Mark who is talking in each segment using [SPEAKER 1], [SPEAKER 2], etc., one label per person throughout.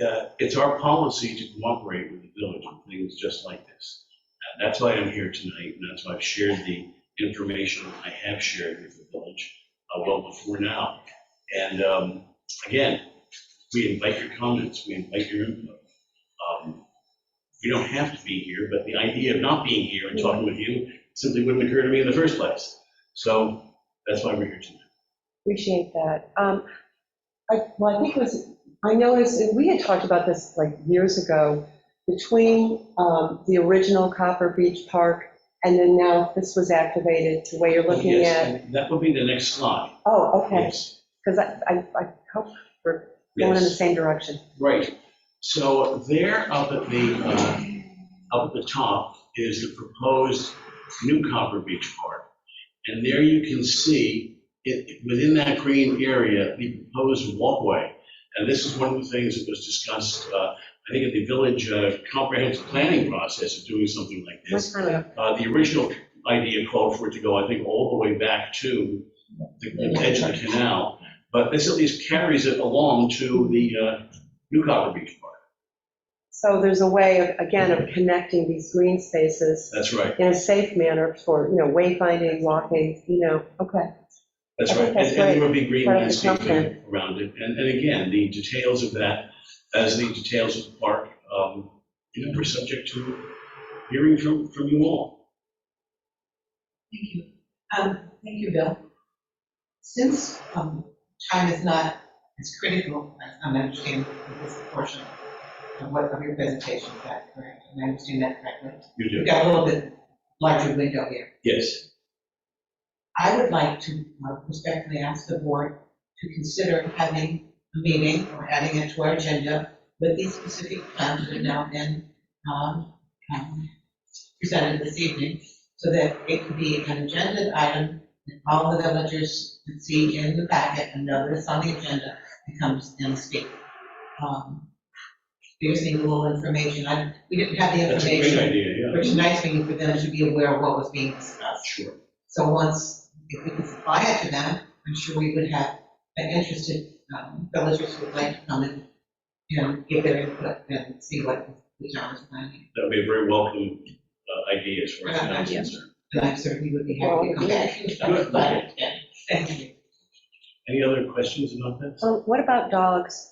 [SPEAKER 1] uh, it's our policy to cooperate with the village on things just like this. Uh, That's why I'm here tonight, and that's why I've shared the information I have shared with the village uh, well before now. And um, again, we invite your comments, we invite your input. Um, You don't have to be here, but the idea of not being here and talking with you simply wouldn't occur to me in the first place. So that's why we're here tonight.
[SPEAKER 2] Appreciate that. Um, I, well, I think it was, I noticed, that we had talked about this like years ago, between um, the original Copper Beach Park and then now this was activated to where you're looking
[SPEAKER 1] Yes,
[SPEAKER 2] at.
[SPEAKER 1] and That will be the next slide.
[SPEAKER 2] Oh, okay,
[SPEAKER 1] Yes.
[SPEAKER 2] because I, I I hope we're going in the
[SPEAKER 1] Yes,
[SPEAKER 2] same direction.
[SPEAKER 1] right. So there up at the, uh, up at the top is the proposed new Copper Beach Park. And there you can see, it, within that green area, the proposed walkway. And this is one of the things that was discussed, uh, I think, at the village uh, comprehensive planning process of doing something like this.
[SPEAKER 2] What's kind of-
[SPEAKER 1] Uh, The original idea called for it to go, I think, all the way back to the the edge of the canal, but this at least carries it along to the uh, New Copper Beach Park.
[SPEAKER 2] So there's a way of, again, of connecting these green spaces
[SPEAKER 1] Mm-hmm. That's right,
[SPEAKER 2] in a safe manner for, you know, wayfinding, walking, you know, okay.
[SPEAKER 1] that's right.
[SPEAKER 2] I think
[SPEAKER 1] And
[SPEAKER 2] that's
[SPEAKER 1] and there would be green
[SPEAKER 2] Part of the
[SPEAKER 1] landscaping
[SPEAKER 2] comfort.
[SPEAKER 1] around it. And, and again, the details of that, as the details of the park, um, you know, are subject to hearing from, from you all.
[SPEAKER 3] Thank you. Um, Thank you, Bill. Since um, time is not as critical, I I understand this portion of what, of your presentation, is that correct? Am I understanding that correctly?
[SPEAKER 1] You
[SPEAKER 3] We've
[SPEAKER 1] do,
[SPEAKER 3] got a little bit larger window here.
[SPEAKER 1] yes.
[SPEAKER 3] I would like to uh, respectfully ask the board to consider having a meeting or adding it to our agenda with these specific plans that have now been um, um, presented this evening, so that it could be an agenda item that all the villagers can see in the packet and notice on the agenda and comes and speak. Um, Using a little information, I, we didn't have the
[SPEAKER 1] That's a great
[SPEAKER 3] information,
[SPEAKER 1] idea, yeah.
[SPEAKER 3] which is nice for you, for them to be aware of what was being discussed.
[SPEAKER 1] Sure.
[SPEAKER 3] So once, if we could supply it to them, I'm sure we would have an interested um, villagers who would like to come and, you know, give their input and see what the town is planning.
[SPEAKER 1] That would be a very welcome uh, idea as far as
[SPEAKER 3] Yeah.
[SPEAKER 1] I'm concerned.
[SPEAKER 3] And I certainly would be happy to come back. and talk about it. Yeah. Thank you.
[SPEAKER 1] Any other questions about this?
[SPEAKER 2] So what about dogs?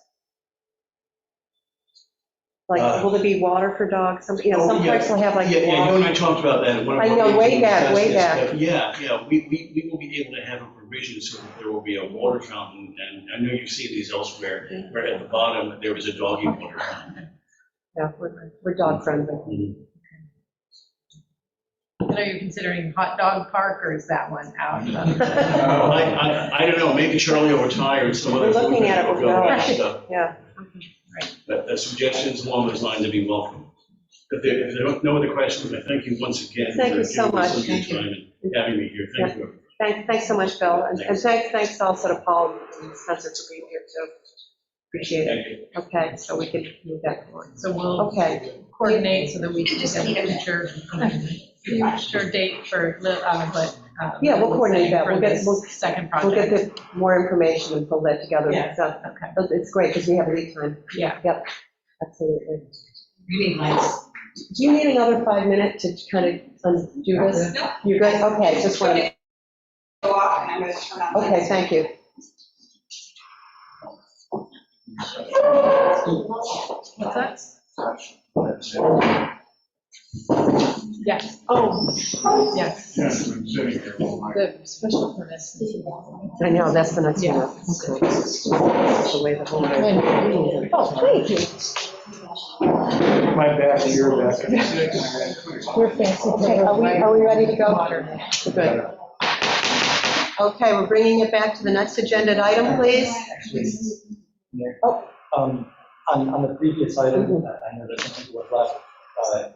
[SPEAKER 2] Like, will there be water for dogs? Some, you know, some
[SPEAKER 1] Oh, Uh, yeah.
[SPEAKER 2] parks will have like
[SPEAKER 1] Yeah, yeah, you
[SPEAKER 2] water.
[SPEAKER 1] and I talked about that. in one of
[SPEAKER 2] I
[SPEAKER 1] our
[SPEAKER 2] know, way
[SPEAKER 1] meetings,
[SPEAKER 2] back,
[SPEAKER 1] yes,
[SPEAKER 2] way
[SPEAKER 1] yes, but Yeah, yeah, we, we, we will be able to have a provision so that there will be a water fountain, and I know you've seen these elsewhere, where at the bottom, there was a doggy water fountain.
[SPEAKER 2] Yeah, we're, we're dog friendly.
[SPEAKER 4] And are you considering hot dog park or is that one out?
[SPEAKER 1] I, I, I don't know, maybe Charlie will retire and some other.
[SPEAKER 2] We're looking
[SPEAKER 1] food
[SPEAKER 2] at it,
[SPEAKER 1] will go
[SPEAKER 2] we're
[SPEAKER 1] around,
[SPEAKER 2] not-
[SPEAKER 1] so,
[SPEAKER 2] Yeah,
[SPEAKER 1] But the suggestions along those lines would be welcome. If there, if there are no other questions, I thank you once again.
[SPEAKER 2] Thank
[SPEAKER 1] for
[SPEAKER 2] you so
[SPEAKER 1] giving us
[SPEAKER 3] much.
[SPEAKER 1] some of your time and Having me here, thank you.
[SPEAKER 2] thanks, thanks so much, Bill, and and thanks, thanks also to Paul and Spencer for being here too. Appreciate it.
[SPEAKER 1] Thank you.
[SPEAKER 2] Okay, so we can move that forward.
[SPEAKER 4] So we'll
[SPEAKER 2] Okay,
[SPEAKER 4] coordinate so that we can get a future, um, future date for, li- uh, what. uh,
[SPEAKER 2] Yeah, we'll coordinate that. We'll
[SPEAKER 4] For
[SPEAKER 2] get-
[SPEAKER 4] this
[SPEAKER 2] we'll-
[SPEAKER 4] second
[SPEAKER 2] we'll get
[SPEAKER 4] project.
[SPEAKER 2] the more information and pull that together.
[SPEAKER 3] Yeah.
[SPEAKER 2] So,
[SPEAKER 4] Okay,
[SPEAKER 2] but it's great because we have lead time,
[SPEAKER 4] yeah.
[SPEAKER 2] absolutely.
[SPEAKER 3] You need lights.
[SPEAKER 2] Do you need another five minute to kind of undo this?
[SPEAKER 5] No,
[SPEAKER 2] You're good, okay, just
[SPEAKER 5] I'm
[SPEAKER 2] want
[SPEAKER 5] gonna
[SPEAKER 2] to,
[SPEAKER 5] go off and I'm gonna turn on.
[SPEAKER 2] okay, thank you.
[SPEAKER 4] What's that? Yes,
[SPEAKER 2] Oh.
[SPEAKER 4] yes.
[SPEAKER 6] Yeah, it's been sitting here all night.
[SPEAKER 4] The special permits.
[SPEAKER 2] I know, that's the next one.
[SPEAKER 4] Yeah.
[SPEAKER 2] up. Okay. That's The way the whole.
[SPEAKER 4] Oh, thank
[SPEAKER 6] My back, your back.
[SPEAKER 4] We're fancy.
[SPEAKER 2] Okay, are we, are we ready to go? We're Good. Okay, we're bringing it back to the next agenda item, please.
[SPEAKER 7] Um, On, on the previous item, I know there's something was left. uh,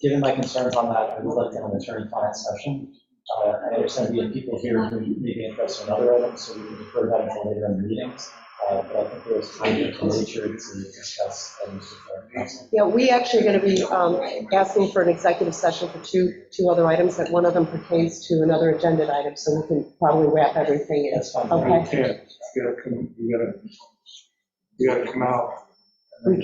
[SPEAKER 7] Given my concerns on that, I would like to have an attorney-client session. Uh, I understand we have people here who may be interested in other items, so we can defer that until later in the meetings. Uh, But I think there's time and nature to discuss items with our council.
[SPEAKER 2] Yeah, we actually are going to be um, asking for an executive session for two, two other items, and one of them pertains to another agenda item, so we can probably wrap everything in.
[SPEAKER 7] That's fine.
[SPEAKER 2] Okay.
[SPEAKER 6] You can't, you gotta come, you gotta, you gotta come out.